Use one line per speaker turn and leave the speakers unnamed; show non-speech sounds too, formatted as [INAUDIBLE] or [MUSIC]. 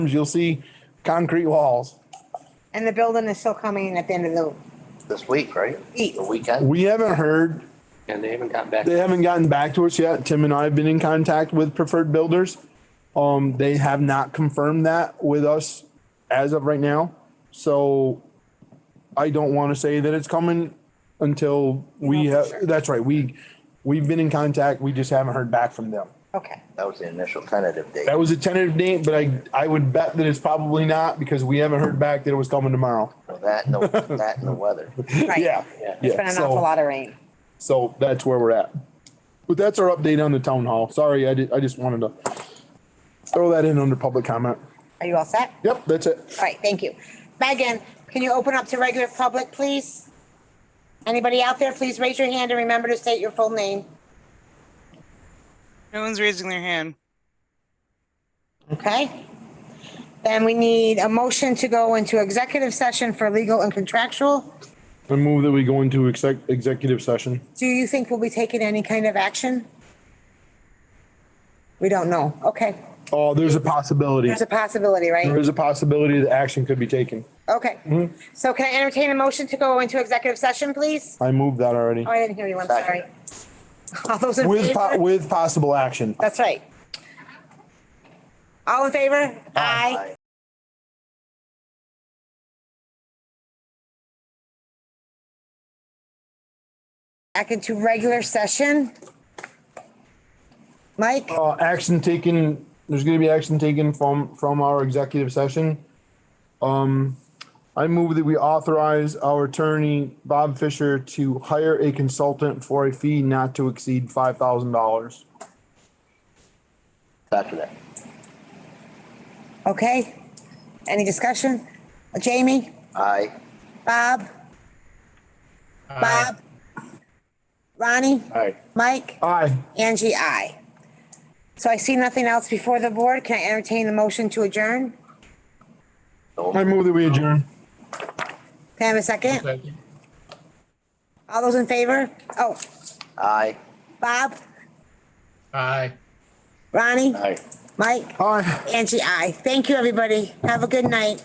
you'll see concrete walls.
And the building is still coming in at the end of the
this week, right?
week.
The weekend,
We haven't heard,
and they haven't gotten back.
they haven't gotten back to us yet. Tim and I have been in contact with preferred builders. Um, they have not confirmed that with us as of right now. So I don't want to say that it's coming until we
know for
have,
sure.
that's right, we, we've been in contact, we just haven't heard back from them.
Okay.
That was the initial tentative date.
That was a tentative date, but I, I would bet that it's probably not because we haven't heard back that it was coming tomorrow. [LAUGHS]
That and the, that and the weather.
Right.
Yeah.
Yeah.
It's been an
so-
awful lot of rain.
So that's where we're at. But that's our update on the town hall. Sorry, I did, I just wanted to throw that in under public comment.
Are you all set?
Yep, that's it.
All right, thank you. Megan, can you open up to regular public, please? Anybody out there, please raise your hand and remember to state your full name.
No one's raising their hand.
Okay? Then we need a motion to go into executive session for legal and contractual.
I move that we go into exec, executive session.
Do you think we'll be taking any kind of action? We don't know. Okay.
Oh, there's a possibility.
There's a possibility, right?
There's a possibility that action could be taken.
Okay. So can I entertain a motion to go into executive session, please?
I moved that already.
Oh, I didn't hear you. I'm
Second.
sorry. [LAUGHS] All those in
With, po-
favor?
with possible action.
That's right. All in favor? Aye. Back into regular session. Mike,
Uh, action taken, there's gonna be action taken from, from our executive session. Um, I move that we authorize our attorney, Bob Fisher, to hire a consultant for a fee not to exceed five thousand dollars.
After that.
okay? Any discussion? Jamie,
Aye.
Bob? Bob? Ronnie?
Aye.
Mike?
Aye,
Angie, I. So I see nothing else before the board. Can I entertain the motion to adjourn?
I move that we adjourn.
Can I have a second? All those in favor? Oh,
Aye.
Bob,
Aye.
Ronnie,
Aye.
Mike,
Aye.
Angie, I. Thank you, everybody. Have a good night.